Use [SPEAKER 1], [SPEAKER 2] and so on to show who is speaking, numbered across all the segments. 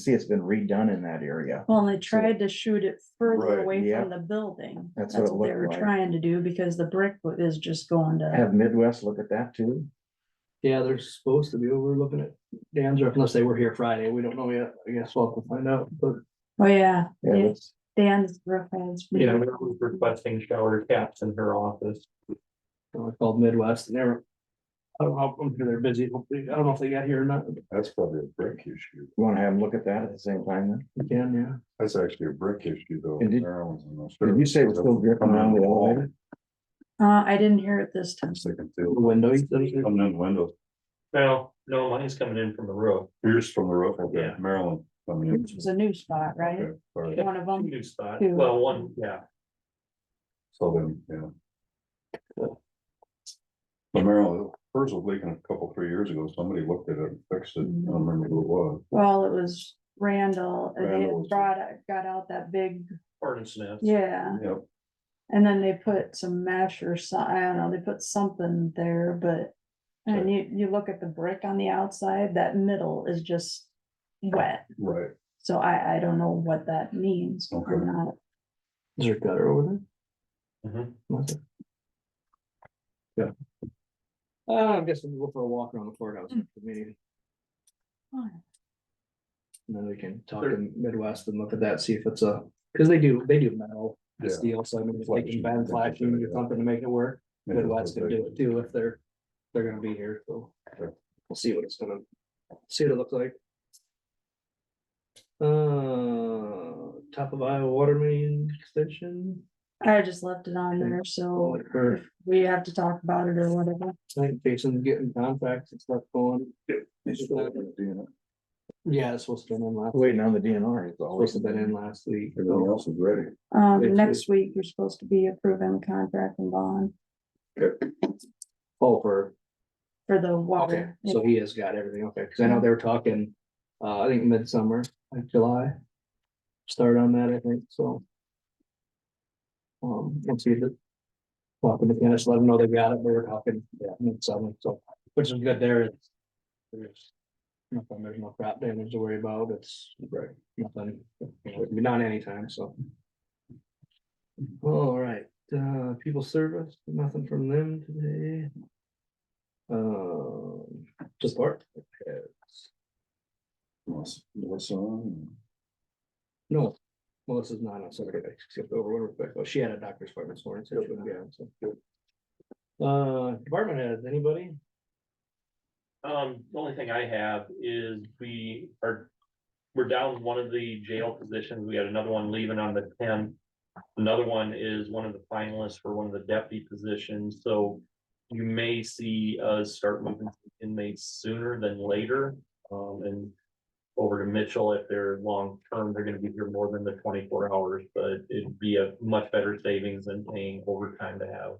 [SPEAKER 1] see it's been redone in that area.
[SPEAKER 2] Well, and they tried to shoot it further
[SPEAKER 3] Right,
[SPEAKER 2] away
[SPEAKER 1] yeah.
[SPEAKER 2] from the building.
[SPEAKER 1] That's
[SPEAKER 2] That's
[SPEAKER 1] what it
[SPEAKER 2] what they
[SPEAKER 1] looked
[SPEAKER 2] were
[SPEAKER 1] like.
[SPEAKER 2] trying to do because the brick wa- is just going to,
[SPEAKER 1] Have Midwest look at that too.
[SPEAKER 4] Yeah, they're supposed to be overlooking it. Dan's, or unless they were here Friday, we don't know yet. I guess we'll have to find out, but.
[SPEAKER 2] oh yeah,
[SPEAKER 1] Yeah,
[SPEAKER 2] Yeah.
[SPEAKER 1] let's-
[SPEAKER 2] Dan's roof has.
[SPEAKER 5] Yeah, we were requesting shower caps in her office.
[SPEAKER 4] I called Midwest and they're. I don't know, I'm sure they're busy. Hopefully, I don't know if they got here or not. but
[SPEAKER 3] That's probably a brick issue.
[SPEAKER 1] You wanna have them look at that at the same time then?
[SPEAKER 4] They can, yeah.
[SPEAKER 3] That's actually a brick issue though.
[SPEAKER 1] And did-
[SPEAKER 3] Maryland's in those-
[SPEAKER 1] Did you say it was still dripping around the elevator?
[SPEAKER 2] Uh, I didn't hear it this time.
[SPEAKER 3] It's like a
[SPEAKER 4] The
[SPEAKER 3] field.
[SPEAKER 4] window. you said it-
[SPEAKER 3] Coming in the window,
[SPEAKER 5] No, no, mine's coming in from the roof.
[SPEAKER 3] pierced from the roof, okay,
[SPEAKER 5] Yeah.
[SPEAKER 3] Maryland coming in.
[SPEAKER 2] Which was a new spot, right?
[SPEAKER 3] Okay, all right.
[SPEAKER 2] One of
[SPEAKER 5] One
[SPEAKER 2] them.
[SPEAKER 5] New spot,
[SPEAKER 2] Two.
[SPEAKER 5] well, one, yeah,
[SPEAKER 3] So then, yeah. But Maryland, hers was leaking a couple, three years ago, somebody looked at it, and fixed it, I don't remember who it was.
[SPEAKER 2] Well, it was Randall and they
[SPEAKER 3] Randall
[SPEAKER 2] had
[SPEAKER 3] was-
[SPEAKER 2] brought, it- got out that big,
[SPEAKER 5] furnace nest.
[SPEAKER 2] yeah.
[SPEAKER 3] Yep,
[SPEAKER 2] And then they put some mesh or some, I don't know, they put something there, but. And you, you look at the brick on the outside, that middle is just wet.
[SPEAKER 3] right,
[SPEAKER 2] So I, I don't know what that means or
[SPEAKER 3] Okay.
[SPEAKER 2] not.
[SPEAKER 4] Is there a gutter over there?
[SPEAKER 5] Mhm.
[SPEAKER 4] Was there? Yeah. Uh, I guess we'll go for a walk around the courthouse after the meeting. And then we can talk
[SPEAKER 5] Sure.
[SPEAKER 4] in Midwest and look at that, see if it's a, because they do, they do metal. and
[SPEAKER 3] Yeah.
[SPEAKER 4] Steel, so I mean, if they
[SPEAKER 3] Flashing,
[SPEAKER 4] can bend
[SPEAKER 3] they
[SPEAKER 4] flashing
[SPEAKER 3] can do
[SPEAKER 4] or
[SPEAKER 3] it, yeah.
[SPEAKER 4] something to make it work.
[SPEAKER 3] yeah.
[SPEAKER 4] Midwest can do it too if they're, they're gonna be here, so.
[SPEAKER 3] Sure.
[SPEAKER 4] We'll see what it's gonna, see what it looks like. Uh, top of Iowa water main extension.
[SPEAKER 2] I just left it on there, so
[SPEAKER 4] Or,
[SPEAKER 2] we have to talk about it or whatever.
[SPEAKER 4] I think Jason's getting contacts and stuff going.
[SPEAKER 3] He's still doing it.
[SPEAKER 4] Yeah, it's supposed to have been in last,
[SPEAKER 1] Waiting on the DNR. is
[SPEAKER 4] supposed
[SPEAKER 1] always-
[SPEAKER 4] to have been in last week.
[SPEAKER 3] Everything else is ready.
[SPEAKER 4] Thank
[SPEAKER 2] Um,
[SPEAKER 4] you.
[SPEAKER 2] next week, you're supposed to be approving the contract and bond
[SPEAKER 4] Oh, for
[SPEAKER 2] for the
[SPEAKER 4] Okay,
[SPEAKER 2] water.
[SPEAKER 4] so he has got everything, okay, cause I know they were talking, uh, I think midsummer, like July. Start on that, I think, so. Um, let's see, the. Talking to Dennis, let them know they got it, they were talking, yeah, midsummer, so, which is good there. it's- There's. Nothing, there's no crop damage to worry about, it's. Right. Nothing, you know, not anytime, so. All right, uh, people service, nothing from them today. Um, just art.
[SPEAKER 3] What's, what's on?
[SPEAKER 4] No, Melissa's not on Saturday, except over one respect. Well, she had a doctor's appointment this morning. so she wouldn't be on, so. Uh, department heads, anybody?
[SPEAKER 5] Um, the only thing I have is we are, we're down one of the jail positions, we had another one leaving on the tenth. Another one is one of the finalists for one of the deputy positions, so you may see us start moving inmates sooner than later. Um, and over to Mitchell if they're long-term, they're gonna be here more than the twenty-four hours, but it'd be a much better savings than paying overtime to have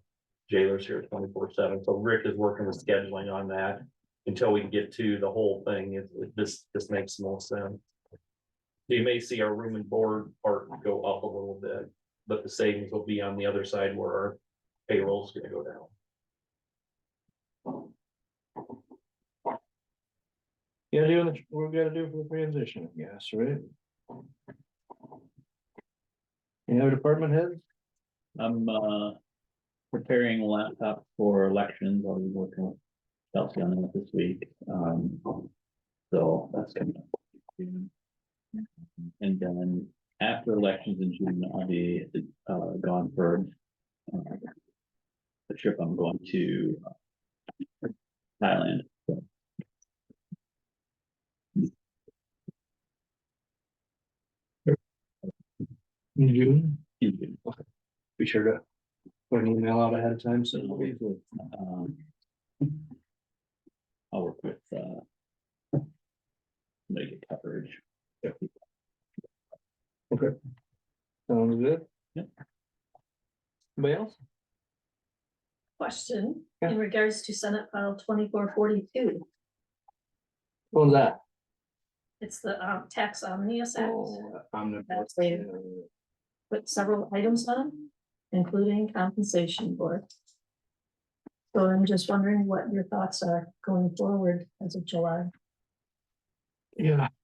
[SPEAKER 5] jailers here twenty-four seven, so Rick is working with scheduling on that until we get to the whole thing, it, it- this, this makes no sense. You may see our room and board part go up a little bit, but the savings will be on the other side where our payroll's gonna go down.
[SPEAKER 4] Yeah, doing, the- we're gonna do for the transition, I guess, right? Any other department heads?
[SPEAKER 6] I'm uh preparing a laptop for elections. I'll be working with Chelsea on that this week. Um, so that's coming up. soon. And then after elections in June, I'll be uh gone for uh, the trip I'm going to uh, Thailand.
[SPEAKER 4] In June?
[SPEAKER 6] in June.
[SPEAKER 4] Be sure to put an email out ahead of time, so. it'll be-
[SPEAKER 6] Um, I'll work with, uh. Make it coverage.
[SPEAKER 4] Sounds good?
[SPEAKER 6] Yep.
[SPEAKER 4] Anybody else?
[SPEAKER 7] question
[SPEAKER 4] Yeah.
[SPEAKER 7] in regards to Senate file twenty-four forty-two.
[SPEAKER 4] What was that?
[SPEAKER 7] It's the um, tax omnibus act
[SPEAKER 4] Oh, I'm the-
[SPEAKER 7] That's weird. with several items on, it, including compensation board. So I'm just wondering what your thoughts are going forward as of July.
[SPEAKER 4] Yeah,